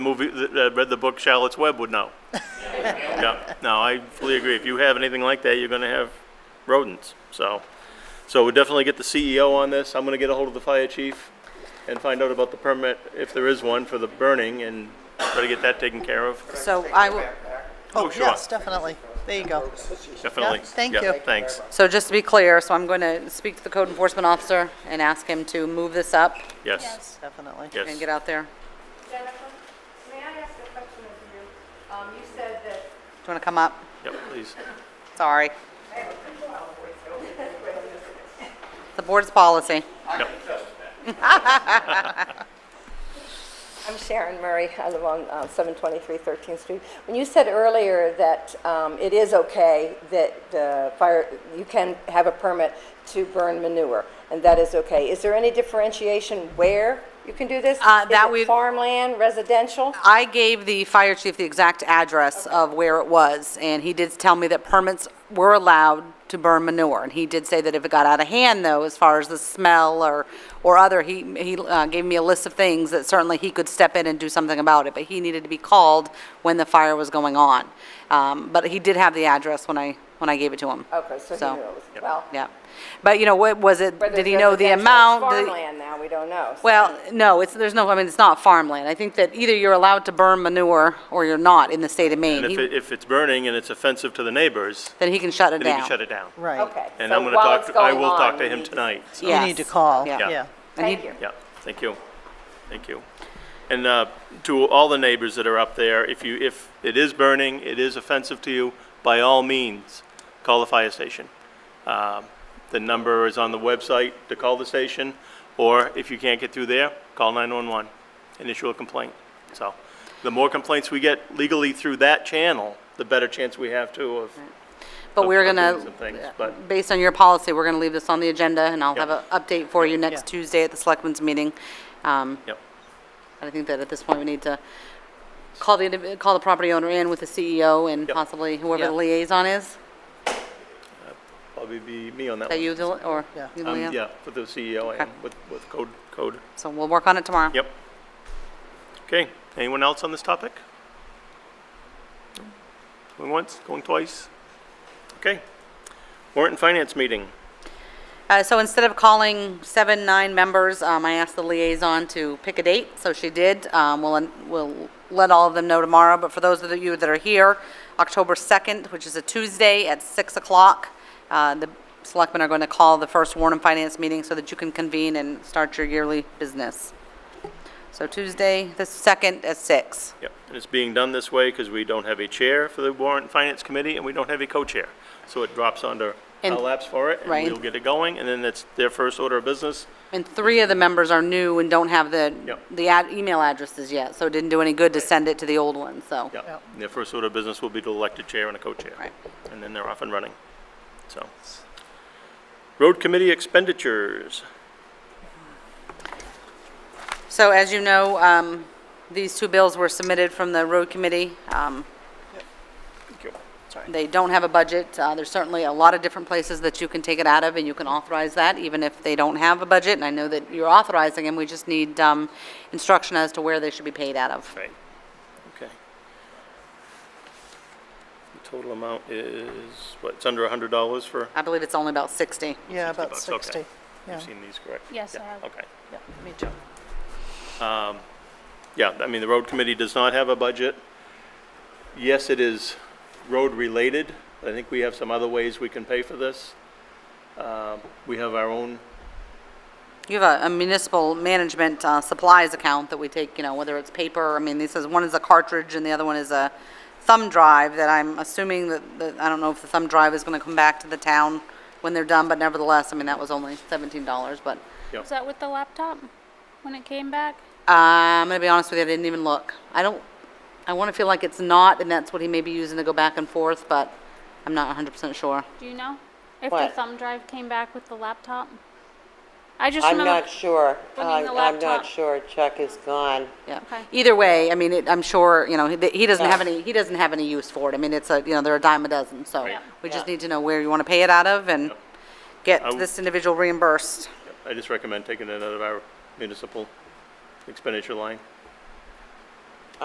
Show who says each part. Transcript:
Speaker 1: movie, that uh, read the book Charlotte's Web would know. Yeah, no, I fully agree. If you have anything like that, you're gonna have rodents, so. So we'll definitely get the CEO on this. I'm gonna get a hold of the fire chief and find out about the permit, if there is one, for the burning and try to get that taken care of.
Speaker 2: So I will,
Speaker 1: Oh, sure.
Speaker 3: Yes, definitely. There you go.
Speaker 1: Definitely.
Speaker 3: Yeah, thank
Speaker 1: Yeah,
Speaker 3: you.
Speaker 1: Thanks.
Speaker 2: so just to be clear, so I'm going to speak to the code enforcement officer and ask him to move this up
Speaker 1: Yes,
Speaker 3: Definitely.
Speaker 2: and
Speaker 1: yes.
Speaker 2: get out there. Do
Speaker 4: Jennifer, may I ask a question of you? Um, you said that,
Speaker 2: you want to come up?
Speaker 1: Yep, please.
Speaker 2: Sorry. The board's policy.
Speaker 4: I'm Sharon Murray, I live on uh, 723 13th Street. When you said earlier that um, it is okay that the fire, you can have a permit to burn manure, and that is okay, is there any differentiation where you can do this?
Speaker 2: Uh, that
Speaker 4: Is it
Speaker 2: we-
Speaker 4: farmland, residential?
Speaker 2: I gave the fire chief the exact address of where it was, and he did tell me that permits were allowed to burn manure. And he did say that if it got out of hand, though, as far as the smell or, or other, he, he uh, gave me a list of things that certainly he could step in and do something about it, but he needed to be called when the fire was going on. Um, But he did have the address when I, when I gave it to him.
Speaker 4: Okay, so he knew it was, well,
Speaker 2: Uh, Yeah. But, you know, what was it,
Speaker 4: whether
Speaker 2: did
Speaker 4: it's
Speaker 2: he know the
Speaker 4: residential, it's
Speaker 2: amount? Did he-
Speaker 4: farmland now, we don't know. so-
Speaker 2: well, no, it's, there's no, I mean, it's not farmland. I think that either you're allowed to burn manure or you're not in the state of Maine.
Speaker 1: And if,
Speaker 2: He-
Speaker 1: it- if it's burning and it's offensive to the neighbors,
Speaker 2: Then he can shut it
Speaker 1: then you
Speaker 2: down.
Speaker 1: can shut it down.
Speaker 3: Right.
Speaker 4: Okay.
Speaker 1: And
Speaker 4: so
Speaker 1: I'm gonna
Speaker 4: while
Speaker 1: talk,
Speaker 4: it's
Speaker 1: to- I
Speaker 4: going
Speaker 1: will talk
Speaker 4: on,
Speaker 1: to
Speaker 4: we
Speaker 1: him
Speaker 4: need
Speaker 1: tonight, so.
Speaker 3: You
Speaker 2: Yes.
Speaker 3: need to call.
Speaker 2: Yeah.
Speaker 3: Yeah.
Speaker 2: And he-
Speaker 4: Thank you.
Speaker 1: Yeah, thank you. Thank you. And uh, to all the neighbors that are up there, if you, if it is burning, it is offensive to you, by all means, call the fire station. Um, The number is on the website to call the station, or if you can't get through there, call 911 and issue a complaint. So the more complaints we get legally through that channel, the better chance we have too of,
Speaker 2: But we're
Speaker 1: of
Speaker 2: gonna, uh,
Speaker 1: doing some things, but-
Speaker 2: based on your policy, we're gonna leave this on the agenda and I'll have an
Speaker 1: Yep.
Speaker 2: update for you next
Speaker 3: Yeah.
Speaker 2: Tuesday at the selectmen's meeting. Um,
Speaker 1: yep,
Speaker 2: and I think that at this point, we need to call the, indiv- call the property owner in with the CEO and
Speaker 1: Yep.
Speaker 2: possibly whoever the
Speaker 3: Yeah.
Speaker 2: liaison is.
Speaker 1: probably be me on that
Speaker 2: That
Speaker 1: one.
Speaker 2: you, Dylan, or?
Speaker 3: Yeah.
Speaker 2: you,
Speaker 1: Um,
Speaker 2: Leanne?
Speaker 1: Yeah, with the CEO
Speaker 2: Okay.
Speaker 1: and with, with code, code.
Speaker 2: So we'll work on it tomorrow.
Speaker 1: Yep. Okay, anyone else on this topic? Going once, going twice? Okay. Warrant and Finance meeting.
Speaker 2: Uh, So instead of calling seven, nine members, um, I asked the liaison to pick a date, so she did. Um, We'll, we'll let all of them know tomorrow, but for those of you that are here, October 2nd, which is a Tuesday at 6 o'clock, uh, the selectmen are going to call the first Warren and Finance meeting so that you can convene and start your yearly business. So Tuesday, the 2nd at 6.
Speaker 1: Yep, and it's being done this way because we don't have a chair for the Warrant and Finance Committee, and we don't have a co-chair. So it drops onto our
Speaker 2: And-
Speaker 1: laps for it, and
Speaker 2: right.
Speaker 1: we'll get it going, and then it's their first order of business.
Speaker 2: And three of the members are new and don't have the,
Speaker 1: Yep.
Speaker 2: the ad- email addresses yet, so it didn't do any good to send it to the old one, so.
Speaker 1: Yeah,
Speaker 3: Yep.
Speaker 1: their first order of business will be to elect a chair and a co-chair.
Speaker 2: Right.
Speaker 1: And then they're off and running, so. Road Committee expenditures.
Speaker 2: So as you know, um, these two bills were submitted from the road committee. Um,
Speaker 1: Thank you.
Speaker 2: They don't have a budget. Uh, There's certainly a lot of different places that you can take it out of, and you can authorize that, even if they don't have a budget. And I know that you're authorizing them, we just need um, instruction as to where they should be paid out of.
Speaker 1: Right, okay. The total amount is, what, it's under a hundred dollars for,
Speaker 2: I believe it's only about 60.
Speaker 3: Yeah, about
Speaker 1: bucks, okay.
Speaker 3: 60. Yeah,
Speaker 1: you've seen these, correct?
Speaker 5: Yes, I
Speaker 1: Yeah,
Speaker 5: have.
Speaker 1: Okay, Um,
Speaker 3: yeah, me too.
Speaker 1: yeah, I mean, the road committee does not have a budget. Yes, it is road-related, but I think we have some other ways we can pay for this. Um, We have our own,
Speaker 2: You have a- a municipal management uh, supplies account that we take, you know, whether it's paper, I mean, this is, one is a cartridge and the other one is a thumb drive that I'm assuming that, that, I don't know if the thumb drive is going to come back to the town when they're done, but nevertheless, I mean, that was only $17, but
Speaker 5: Was that with the laptop when it came back?
Speaker 2: uh, I'm going to be honest with you, I didn't even look. I don't, I want to feel like it's not, and that's what he may be using to go back and forth, but I'm not 100% sure.
Speaker 5: Do you know? If the
Speaker 6: What?
Speaker 5: thumb drive came back with the laptop? I just
Speaker 6: I'm
Speaker 5: remember.
Speaker 6: not sure.
Speaker 5: bringing
Speaker 6: I'm
Speaker 5: the
Speaker 6: I'm
Speaker 5: laptop.
Speaker 6: not sure. Chuck is gone.
Speaker 2: Yeah.
Speaker 5: Okay.
Speaker 2: Either way, I mean, it, I'm sure, you know, he, he doesn't have
Speaker 6: Yeah.
Speaker 2: any, he doesn't have any use for it. I mean, it's a, you know, they're a dime a dozen, so
Speaker 1: Right.
Speaker 2: we just
Speaker 6: Yeah.
Speaker 2: need to know where you want to pay it out of and get
Speaker 1: w-
Speaker 2: this individual reimbursed.
Speaker 1: I just recommend taking it out of our municipal expenditure line.